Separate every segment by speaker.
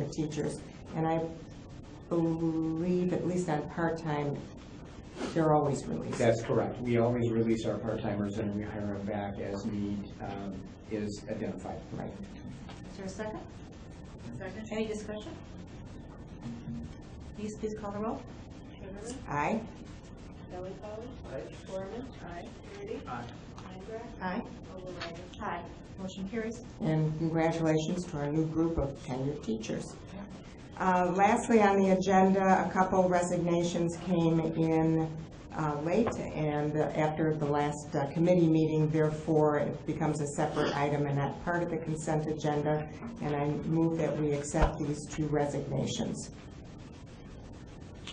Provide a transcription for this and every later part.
Speaker 1: of teachers. And I believe, at least on part-time, they're always released.
Speaker 2: That's correct. We always release our part-timers and we hire them back as need um, is identified.
Speaker 1: Right.
Speaker 3: Is there a second? Second. Any discussion? Please, please call the roll.
Speaker 4: Kimberly,
Speaker 1: Aye?
Speaker 4: Kelly Polly. Aye. Gorman. Aye. Rudy. Aye. Mindrat.
Speaker 3: Aye.
Speaker 4: Overrider.
Speaker 3: Aye. Motion carries.
Speaker 1: and congratulations to our new group of tenured teachers. Uh, Lastly, on the agenda, a couple resignations came in uh, late and after the last uh, committee meeting, therefore it becomes a separate item and not part of the consent agenda, and I move that we accept these two resignations.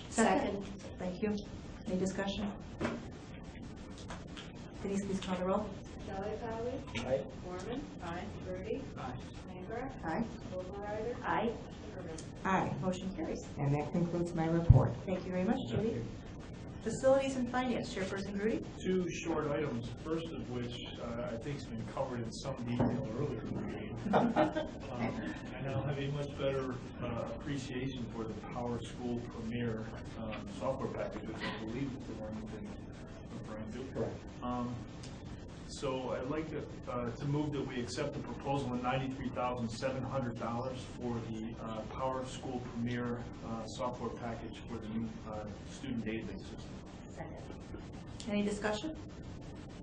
Speaker 3: Second. Thank you. Any discussion? Denise, please call the roll.
Speaker 4: Kelly Polly.
Speaker 2: Aye.
Speaker 4: Gorman. Aye. Rudy.
Speaker 2: Aye.
Speaker 4: Mindrat.
Speaker 1: Aye.
Speaker 4: Overrider.
Speaker 3: Aye.
Speaker 4: Kimberly.
Speaker 1: Aye,
Speaker 3: Motion carries.
Speaker 1: and that concludes my report.
Speaker 3: Thank you very much, Judy. Facilities and Finance, Chairperson Grudy.
Speaker 5: two short items, first of which uh, I think's been covered in some detail earlier. in the meeting. Um, I now have a much better uh, appreciation for the Power School Premier um, software package, which I believe is the one you've been referring to.
Speaker 2: Correct.
Speaker 5: Um, So I'd like to, uh, to move that we accept the proposal of ninety-three thousand seven hundred dollars for the uh, Power School Premier uh, software package for the new uh, student database system.
Speaker 3: Any discussion?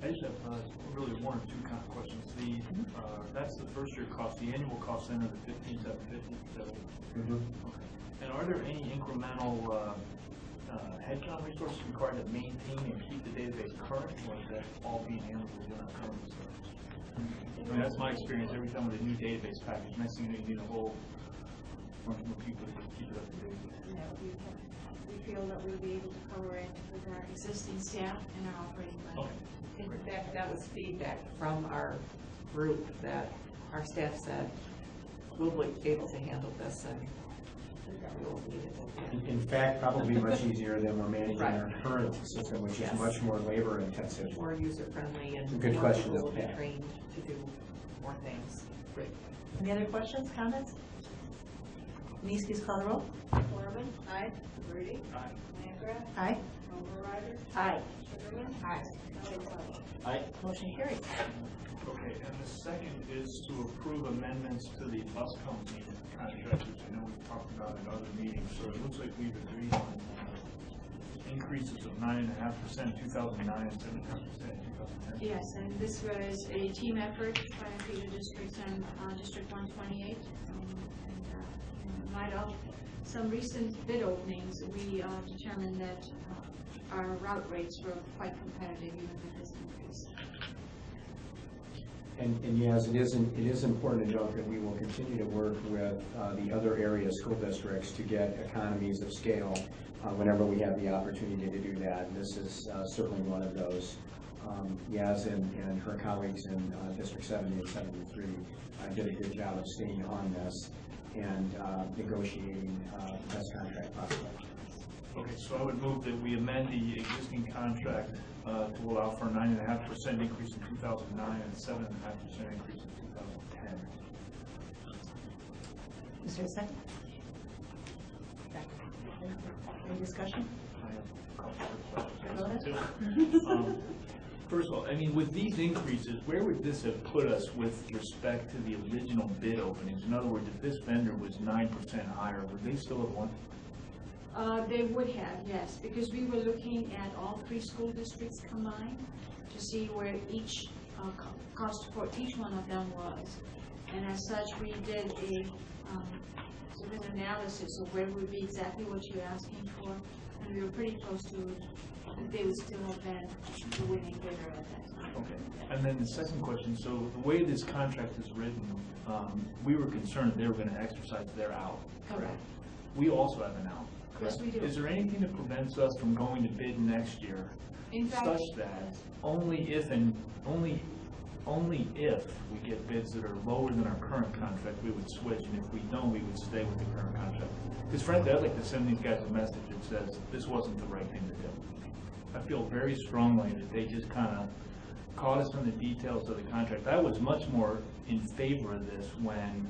Speaker 5: I just have uh, really one or two kind of questions. The, uh, that's the first year cost, the annual cost then of the fifteen, seven fifty, seven.
Speaker 6: Mm-hmm.
Speaker 5: And are there any incremental uh, uh, headcount resources required to maintain and keep the database current? Or is that all being handled within our current resources? I mean, that's my experience every time with a new database package, next thing you know, you need a whole bunch more people to keep it up to date.
Speaker 4: And that we have- we feel that we'll be able to cover it with our existing staff and our operating budget.
Speaker 5: Okay.
Speaker 6: In fact, that was feedback from our group that our staff said, we'll be able to handle this and we won't need it again.
Speaker 2: In- In fact, probably much easier than we're managing our
Speaker 6: Right.
Speaker 2: current system, which is
Speaker 6: Yes.
Speaker 2: much more labor intensive.
Speaker 6: More user-friendly and
Speaker 2: Good
Speaker 6: more
Speaker 2: question,
Speaker 6: people will
Speaker 2: though,
Speaker 6: be
Speaker 2: yeah.
Speaker 6: trained to do more things.
Speaker 3: Any other questions, comments? Denise, please call the roll.
Speaker 4: Gorman. Aye. Rudy.
Speaker 5: Aye.
Speaker 4: Mindrat.
Speaker 3: Aye.
Speaker 4: Overrider.
Speaker 3: Aye.
Speaker 4: Sugarman.
Speaker 1: Aye.
Speaker 4: Kelly Polly.
Speaker 3: Motion carries.
Speaker 5: Okay, and the second is to approve amendments to the bus company contract, which I know we've talked about in other meetings, so it looks like we've agreed on uh, increases of nine and a half percent, two thousand nine, seven and a half percent, two thousand ten.
Speaker 4: Yes, and this was a team effort by Peter Districts and uh, District 128. um, and, uh, in Light of some recent bid openings, we uh, determined that uh, our route rates were quite competitive even with this increase.
Speaker 2: And, and yes, it is, it is important to note that we will continue to work with uh, the other area school districts to get economies of scale uh, whenever we have the opportunity to do that. And This is uh, certainly one of those. Um, Yas and, and her colleagues in uh, District 70 and 73 uh, did a good job of staying on this and uh, negotiating uh, best contract possible.
Speaker 5: Okay, so I would move that we amend the existing contract uh, to allow for a nine and a half percent increase in two thousand nine and seven and a half percent increase in two thousand ten.
Speaker 3: Is there a second? Any discussion? Go ahead.
Speaker 5: Um, First of all, I mean, with these increases, where would this have put us with respect to the original bid openings? In other words, if this vendor was nine percent higher, would they still have won?
Speaker 4: Uh, They would have, yes, because we were looking at all three school districts combined to see where each uh, co- cost for each one of them was. And as such, we did a um, sort of an analysis of where would be exactly what you're asking for, and we were pretty close to, that they would still have been the winning bidder at that time.
Speaker 5: Okay. And then the second question, so the way this contract is written, um, we were concerned they were gonna exercise their out.
Speaker 4: Correct.
Speaker 5: We also have an out.
Speaker 4: Yes, we do.
Speaker 5: Is there anything that prevents us from going to bid next year
Speaker 4: In fact,
Speaker 5: such that only if and, only, only if we get bids that are lower than our current contract, we would switch, and if we don't, we would stay with the current contract. Because frankly, I'd like to send these guys a message that says, this wasn't the right thing to do. I feel very strongly that they just kind of caught us on the details of the contract. I was much more in favor of this when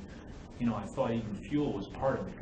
Speaker 5: you know, I thought even fuel was part of it, 'cause